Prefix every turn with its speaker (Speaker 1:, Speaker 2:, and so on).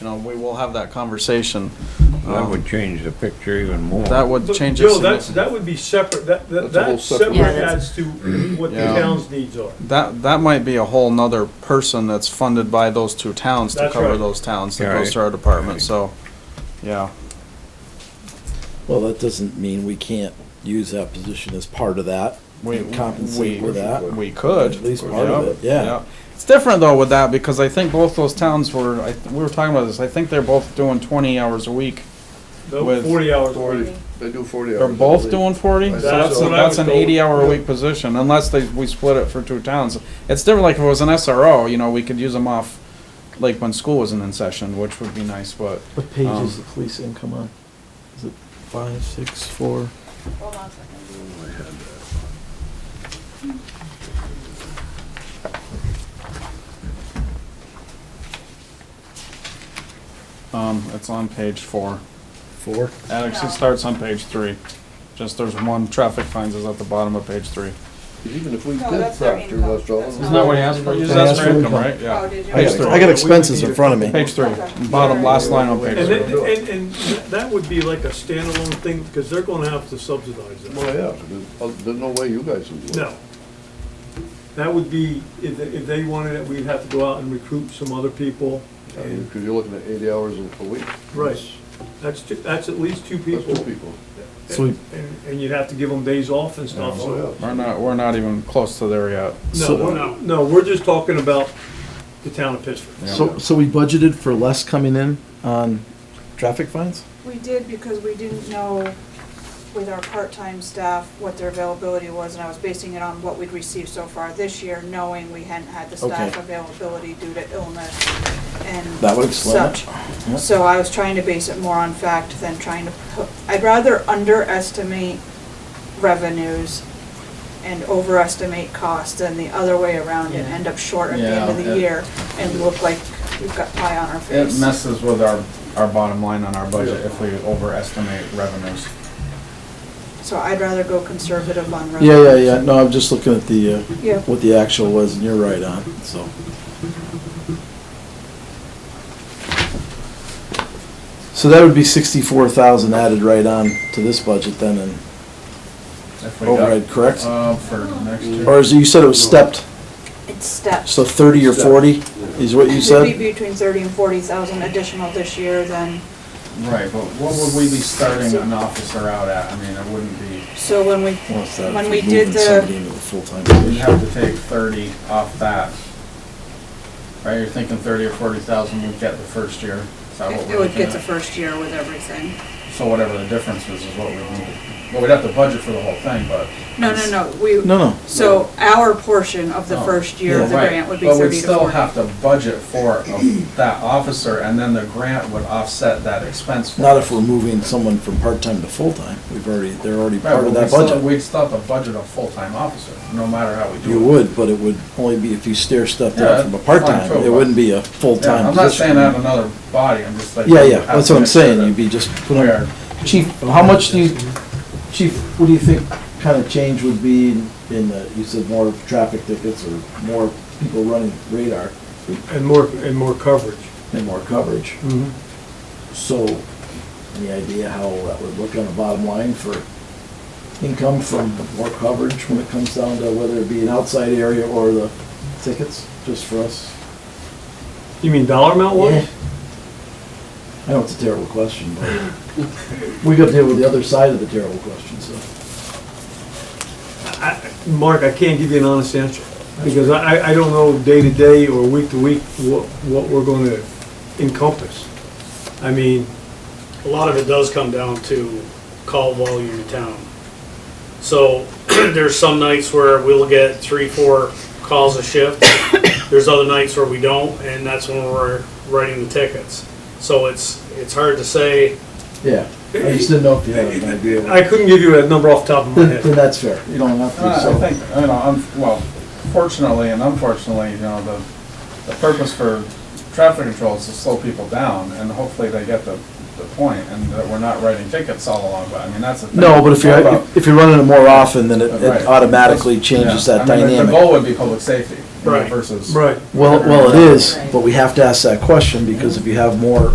Speaker 1: you know, we will have that conversation.
Speaker 2: That
Speaker 1: Um,
Speaker 2: would change the picture even more.
Speaker 1: That would
Speaker 3: But,
Speaker 1: change it.
Speaker 3: Joe, that's,
Speaker 1: significantly.
Speaker 3: that would be separate, that, that,
Speaker 4: That's a whole
Speaker 3: that's separate
Speaker 4: separate-
Speaker 5: Yeah, that's-
Speaker 3: as to what the
Speaker 1: Yeah.
Speaker 3: town's needs are.
Speaker 1: That, that might be a whole nother person that's funded by those two towns to
Speaker 3: That's
Speaker 1: cover
Speaker 3: right.
Speaker 1: those towns that
Speaker 2: Yeah,
Speaker 1: goes
Speaker 2: right.
Speaker 1: to our department,
Speaker 2: Right.
Speaker 1: so, yeah.
Speaker 4: Well, that doesn't mean we can't use that position as part of that.
Speaker 1: We-
Speaker 4: and compensate
Speaker 1: we-
Speaker 4: for that.
Speaker 1: We could.
Speaker 4: At least part of
Speaker 1: Yep,
Speaker 4: it, yeah.
Speaker 1: yep. It's different though with that, because I think both those towns were, I, th- we were talking about this, I think they're both doing twenty hours a week.
Speaker 3: No,
Speaker 1: With-
Speaker 3: forty hours a week.
Speaker 4: Forty.
Speaker 6: They do forty hours.
Speaker 1: They're
Speaker 6: I
Speaker 1: both
Speaker 6: believe.
Speaker 1: doing forty, so
Speaker 3: That's
Speaker 1: that's,
Speaker 3: what I
Speaker 1: that's
Speaker 3: was
Speaker 1: an
Speaker 3: told.
Speaker 1: eighty-hour-a-week position, unless they, we split it for two towns. It's different, like if it was an SRO, you know, we could use them off, like when school wasn't in session, which would be nice, but.
Speaker 7: What page
Speaker 1: Um,
Speaker 7: is the police income on? Is it five, six, four?
Speaker 5: Hold on a second.
Speaker 1: Um, it's on page four.
Speaker 4: Four?
Speaker 1: It actually starts on page three. Just there's one, traffic fines is at the bottom of page three.
Speaker 6: Even if we
Speaker 5: No,
Speaker 6: did
Speaker 5: that's their
Speaker 6: Proctor
Speaker 5: income.
Speaker 6: Westall.
Speaker 5: That's
Speaker 1: Isn't that what he asked for? You just asked for income, right?
Speaker 5: Oh,
Speaker 1: Yeah.
Speaker 5: did you?
Speaker 4: I
Speaker 1: Page
Speaker 4: got,
Speaker 1: three.
Speaker 4: I got expenses in front of me.
Speaker 1: Page three, bottom last line on
Speaker 3: And,
Speaker 1: page
Speaker 3: it-
Speaker 1: three.
Speaker 3: and, and that would be like a standalone thing, because they're gonna have to subsidize that.
Speaker 6: Well, yeah, there's, uh, there's no way you guys would do it.
Speaker 3: No. That would be, if, they- if they wanted it, we'd have to go out and recruit some other people. And
Speaker 6: Because you're looking at eighty hours a a week.
Speaker 3: Right. that's, two- that's at least two
Speaker 6: That's
Speaker 3: people.
Speaker 6: two people.
Speaker 7: So we-
Speaker 3: And, and you'd have to give them days off and stuff, so.
Speaker 6: Oh, yeah.
Speaker 1: We're not, we're not even close to there yet.
Speaker 3: No,
Speaker 7: So-
Speaker 3: we're- no, we're just talking about the town of Pittsburgh.
Speaker 7: So, so we budgeted for less coming in on traffic fines?
Speaker 5: We did because we didn't know with our part-time staff what their availability was, and I was basing it on what we'd received so far this year, knowing we hadn't had the staff
Speaker 4: Okay.
Speaker 5: availability due to illness and
Speaker 4: That would explain it.
Speaker 5: such.
Speaker 4: Yep.
Speaker 5: So I was trying to base it more on fact than trying to put, I'd rather underestimate revenues and overestimate costs than the other way around and end up short at the end of
Speaker 1: Yeah,
Speaker 5: the
Speaker 1: it-
Speaker 5: year and look like we've got pie on our
Speaker 1: It
Speaker 5: face.
Speaker 1: messes with our, our bottom line on our budget if we overestimate revenues.
Speaker 5: So I'd rather go conservative on revenue.
Speaker 7: Yeah, yeah, yeah, no, I'm just looking at the, uh,
Speaker 5: Yeah.
Speaker 7: what the actual was, and you're right on, so. So that would be sixty-four thousand added right on to this budget then, and
Speaker 1: If we got-
Speaker 7: overhead, Oh, correct?
Speaker 1: Uh, for next year.
Speaker 7: Or is, it- you said it was stepped,
Speaker 5: It's steps.
Speaker 7: so thirty or forty is what you
Speaker 5: Should be
Speaker 7: said?
Speaker 5: between thirty and forty thousand additional this year than,
Speaker 1: Right, but what would we be starting an officer out at? I mean, it wouldn't be,
Speaker 5: so when we,
Speaker 7: Well, it's that if
Speaker 5: when
Speaker 7: you're
Speaker 5: we did
Speaker 7: moving
Speaker 5: the,
Speaker 7: Somebody into the full-time
Speaker 1: we'd
Speaker 7: position.
Speaker 1: have to take thirty off that. Right, you're thinking thirty or forty thousand we'd get the first year, is that what
Speaker 5: it
Speaker 1: we're
Speaker 5: would
Speaker 1: looking
Speaker 5: get the
Speaker 1: at?
Speaker 5: first year with everything.
Speaker 1: So whatever the difference is, is what we need. Well, we'd have to budget for the whole thing, but.
Speaker 5: No, no, no, we,
Speaker 7: No, no,
Speaker 5: so our portion of the
Speaker 1: Oh,
Speaker 5: first year of the
Speaker 1: Right,
Speaker 5: grant would be
Speaker 1: But we'd
Speaker 5: thirty to
Speaker 1: still
Speaker 5: forty.
Speaker 1: have to budget for of that officer, and then the grant would offset that expense. for
Speaker 7: not
Speaker 1: us.
Speaker 7: if we're moving someone from part-time to full-time, we've already, they're already
Speaker 1: Right,
Speaker 7: part
Speaker 1: but
Speaker 7: of
Speaker 1: we'd
Speaker 7: that
Speaker 1: still-
Speaker 7: budget.
Speaker 1: We'd still have to budget a full-time officer, no matter how we do it.
Speaker 7: You would, but it would only be if you stair stepped
Speaker 1: Yeah,
Speaker 7: up from a
Speaker 1: that's fine,
Speaker 7: part-time,
Speaker 1: too,
Speaker 7: it
Speaker 1: but-
Speaker 7: wouldn't be a
Speaker 1: Yeah,
Speaker 7: full-time
Speaker 1: I'm not saying
Speaker 7: position.
Speaker 1: add another body, I'm just like.
Speaker 7: Yeah,
Speaker 1: we
Speaker 7: yeah,
Speaker 1: have
Speaker 7: that's
Speaker 1: to
Speaker 7: what I'm
Speaker 1: make sure
Speaker 7: saying,
Speaker 1: that
Speaker 7: you'd be just
Speaker 1: We
Speaker 7: put on.
Speaker 1: are,
Speaker 7: Chief, how much do you, chief, what do you think kind of change would be in- in, the- you said more traffic tickets or more people running radar
Speaker 3: And more, and more coverage.
Speaker 7: and more coverage? So, any idea how that would look on the bottom line for income from more coverage when it comes down to whether it be an outside area or the tickets, just for us?
Speaker 3: You mean dollar amount
Speaker 7: Yeah.
Speaker 3: wise?
Speaker 7: I know it's a terrible question, but we got to deal with the other side of the terrible question, so.
Speaker 3: I- I- Mark, I can't give you an honest answer, because I, I- I don't know day to day or week to week what, what we're gonna encompass. I mean,
Speaker 8: a lot of it does come down to call volume in town. So there's some nights where we'll get three, four calls a shift. There's other nights where we don't, and that's when we're writing the tickets. So it's, it's hard to say,
Speaker 7: Yeah, I just didn't know if you had an idea.
Speaker 3: I couldn't give you a number off the top of my
Speaker 7: Then,
Speaker 3: head.
Speaker 7: then that's fair, you don't have to,
Speaker 1: Uh, I
Speaker 7: so.
Speaker 1: think, you know, I'm, well, fortunately and unfortunately, you know, the, the purpose for traffic control is to slow people down, and hopefully they get the, the point, and that we're not writing tickets all along, but I mean, that's a.
Speaker 7: No, but if you're, if you're running it more often, then it- it automatically changes that
Speaker 1: The
Speaker 7: dynamic.
Speaker 1: goal would be public safety, you know,
Speaker 8: Right.
Speaker 1: versus.
Speaker 3: Right.
Speaker 7: Well, well, it is, but we have to ask that question, because if you have more